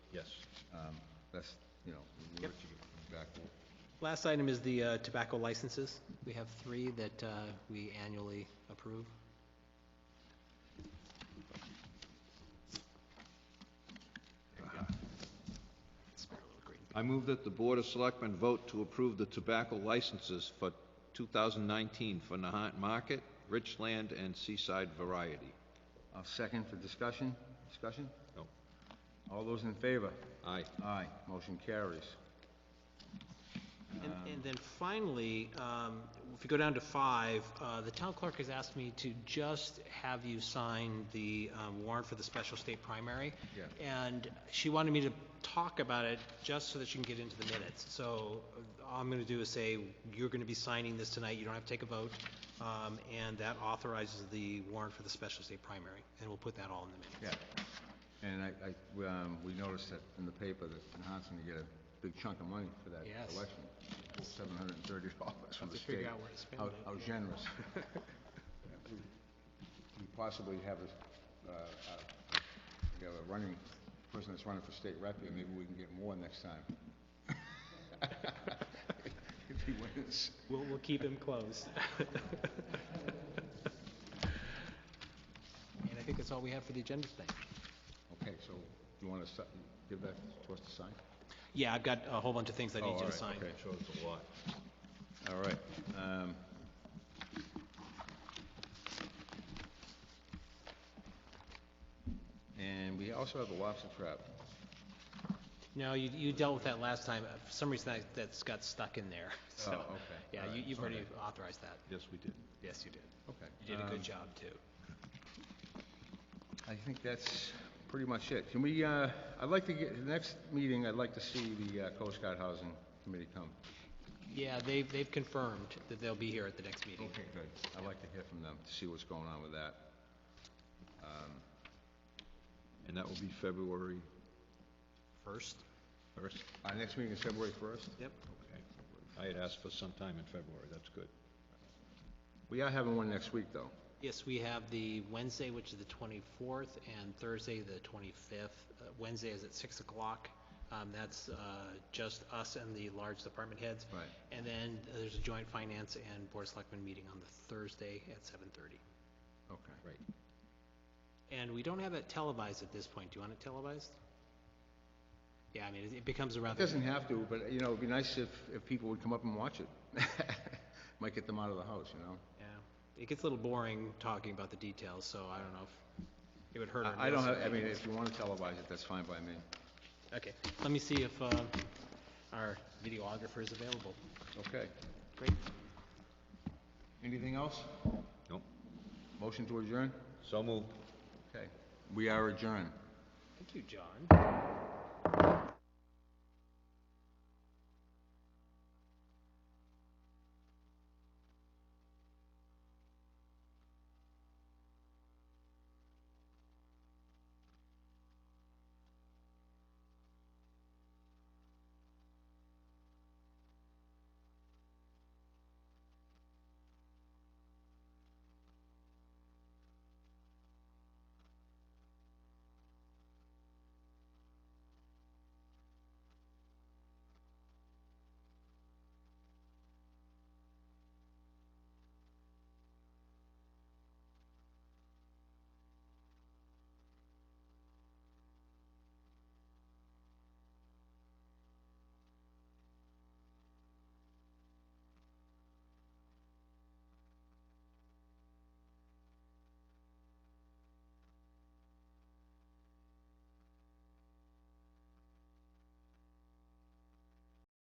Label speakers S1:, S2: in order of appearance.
S1: Um, That's, you know, we'll
S2: Yep.
S1: let you get back.
S2: Last item is the uh, tobacco licenses. We have three that uh, we annually approve.
S3: I move that the Board of Selectmen vote to approve the tobacco licenses for 2019 for Nahant Market, Richland, and Seaside Variety.
S1: I'll second for discussion. Discussion?
S3: No.
S1: All those in favor?
S3: Oh, Aye.
S1: Aye. Motion carries.
S2: And- And then finally, um, if you go down to five, uh, the town clerk has asked me to just have you sign the um, warrant for the special state primary.
S1: Yeah.
S2: And she wanted me to talk about it just so that she can get into the minutes. So uh, all I'm going to do is say, you're going to be signing this tonight, you don't have to take a vote. Um, And that authorizes the warrant for the special state primary, and we'll put that all in the minutes.
S1: Yeah. And I, I- we, um, we noticed that in the paper that Nahan's gonna get a big chunk of money for that
S2: Yes.
S1: election. Seven hundred and thirty dollars from
S2: Have
S1: the
S2: to
S1: state.
S2: figure out where to spend
S1: How-
S2: it.
S1: How generous. We possibly have a, uh, uh, we have a running, person that's running for state rep here, maybe we can get more next time. If he wins.
S2: We'll, we'll keep him closed. And I think that's all we have for the agenda tonight.
S1: Okay, so you wanna si- give that to us to sign?
S2: Yeah, I've got a whole bunch of things I
S1: Oh, all
S2: need you to
S1: right,
S2: sign.
S1: okay.
S3: Sure, it's a lot.
S1: All right. um, And we also have the lobster trap.
S2: No, you, you dealt with that last time. Uh, For some reason, that, that's got stuck in there, so.
S1: okay, Oh, all
S2: Yeah, you,
S1: right,
S2: you've already
S1: okay.
S2: authorized that.
S3: Yes, we did.
S2: Yes, you did.
S1: Okay.
S2: You did a
S1: um,
S2: good job, too.
S1: I think that's pretty much it. Can we, uh, I'd like to get, the next meeting, I'd like to see the uh, Coast Guard Housing Committee come.
S2: Yeah, they've, they've confirmed that they'll be here at the next meeting.
S1: good. I'd like to hear from them, to see what's going on with that. Um,
S3: And that will be February
S2: First?
S3: 1st?
S1: Our next meeting is February 1st.
S2: Yep.
S3: Okay. I had asked for some time in February, that's good.
S1: We are having one next week, though.
S2: Yes, we have the Wednesday, which is the 24th, and Thursday, the 25th. Uh, Wednesday is at 6 o'clock. Um, That's uh, just us and the large department heads.
S1: Right.
S2: And then there's a joint finance and board of selectmen meeting on the Thursday at 7:30.
S1: Okay.
S3: Right.
S2: And we don't have it televised at this point. Do you want it televised? Yeah, I mean, it- it becomes a
S1: It
S2: rather,
S1: doesn't have to, but, you know, it'd be nice if, if people would come up and watch it. Might get them out of the house, you know?
S2: yeah, it gets a little boring talking about the details, so I don't know if it would hurt or not.
S1: I I don't have, I mean, if you want to televise it, that's fine by me.
S2: Okay, let me see if um, our videographer is available.
S1: Okay.
S2: Great.
S1: Anything else?
S3: Nope.
S1: Motion to adjourn?
S3: So moved.
S1: Okay. We are adjourned.
S2: Thank you, John.